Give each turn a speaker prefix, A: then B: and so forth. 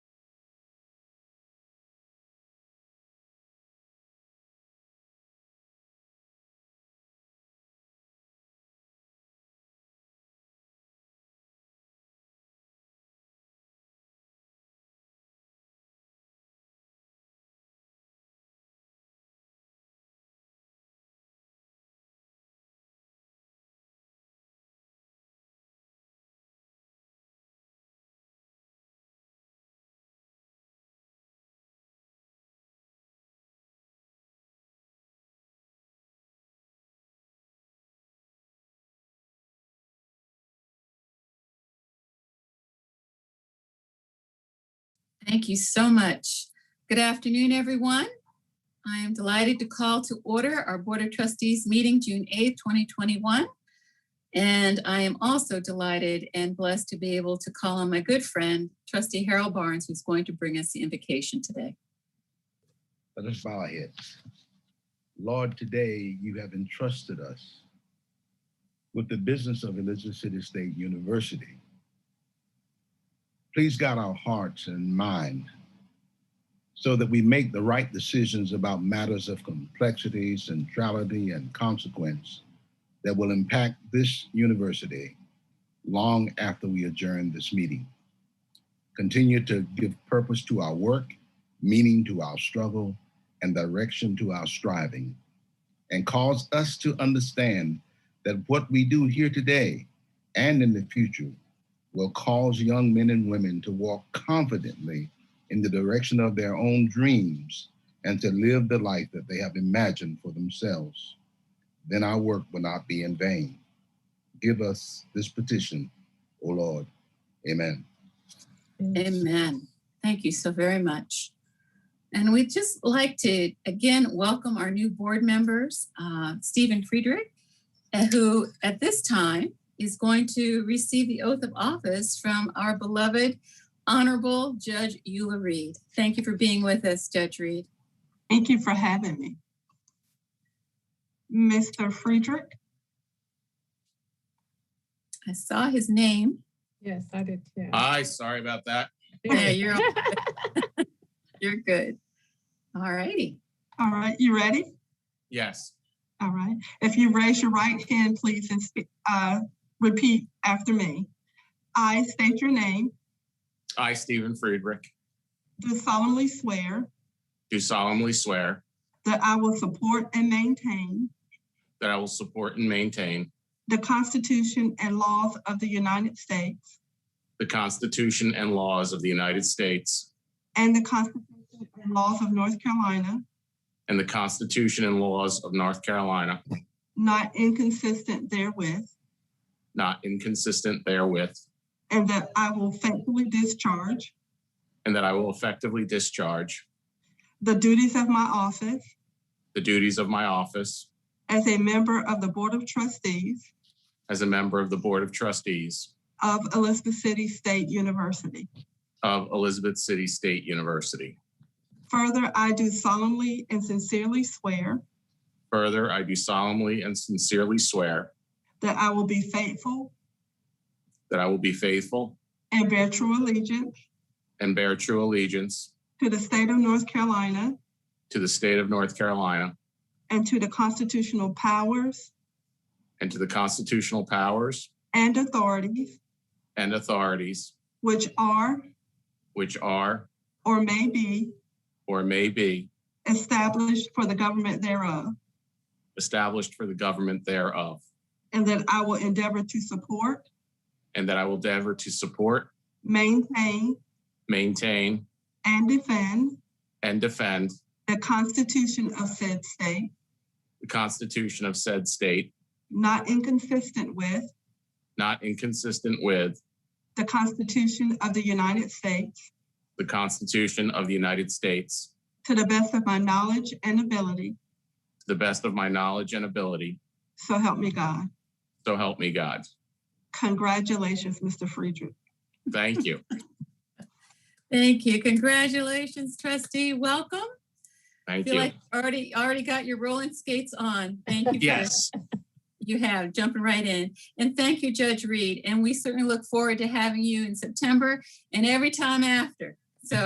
A: Thank you so much. Good afternoon, everyone. I am delighted to call to order our Board of Trustees meeting June 8th, 2021. And I am also delighted and blessed to be able to call on my good friend, trustee Harold Barnes, who's going to bring us the invocation today.
B: Let us bow our heads. Lord, today you have entrusted us with the business of Elizabeth City State University. Please guide our hearts and mind so that we make the right decisions about matters of complexity, centrality, and consequence that will impact this university long after we adjourn this meeting. Continue to give purpose to our work meaning to our struggle, and direction to our striving, and cause us to understand that what we do here today and in the future will cause young men and women to walk confidently in the direction of their own dreams and to live the life that they have imagined for themselves. Then our work will not be in vain. Give us this petition, O Lord. Amen.
A: Mm. Amen. Thank you so very much. And we'd just like to again welcome our new board members, uh, Stephen Friedrich, uh, who at this time is going to receive the oath of office from our beloved Honorable Judge Eula Reed. Thank you for being with us, Judge Reed.
C: Thank you for having me. Mr. Friedrich,
A: I saw his name.
D: Yes, I did too.
E: Aye, sorry about that.
A: Yeah, you're all good. You're good. All righty.
C: all right, you ready?
E: Yes.
C: All right. If you raise your right hand, please, and speak, uh, repeat after me. I state your name,
E: I, Stephen Friedrich,
C: do solemnly swear
E: do solemnly swear
C: that I will support and maintain
E: that I will support and maintain
C: the Constitution and laws of the United States
E: the Constitution and laws of the United States
C: and the Constitution and laws of North Carolina,
E: and the Constitution and laws of North Carolina,
C: not inconsistent therewith,
E: not inconsistent therewith,
C: and that I will faithfully discharge
E: and that I will effectively discharge
C: the duties of my office
E: the duties of my office
C: as a member of the Board of Trustees
E: as a member of the Board of Trustees
C: of Elizabeth City State University.
E: of Elizabeth City State University.
C: Further, I do solemnly and sincerely swear
E: Further, I do solemnly and sincerely swear
C: that I will be faithful
E: that I will be faithful
C: and bear true allegiance
E: and bear true allegiance
C: to the state of North Carolina
E: to the state of North Carolina
C: and to the constitutional powers
E: and to the constitutional powers
C: and authorities
E: and authorities
C: which are
E: which are
C: or may be
E: or may be
C: established for the government thereof,
E: established for the government thereof,
C: and that I will endeavor to support,
E: and that I will endeavor to support,
C: maintain,
E: maintain,
C: and defend
E: and defend
C: the Constitution of said state,
E: the Constitution of said state,
C: not inconsistent with
E: not inconsistent with
C: the Constitution of the United States,
E: the Constitution of the United States,
C: to the best of my knowledge and ability,
E: to the best of my knowledge and ability.
C: so help me God.
E: So help me God.
C: Congratulations, Mr. Friedrich.
E: Thank you.
A: Thank you. Congratulations, trustee. Welcome. I
E: Thank
A: feel
E: you.
A: like already already got your rolling skates on. Thank you. for-
E: Yes,
A: You have jumping right in. And thank you, Judge Reed. And we certainly look forward to having you in September and every time after.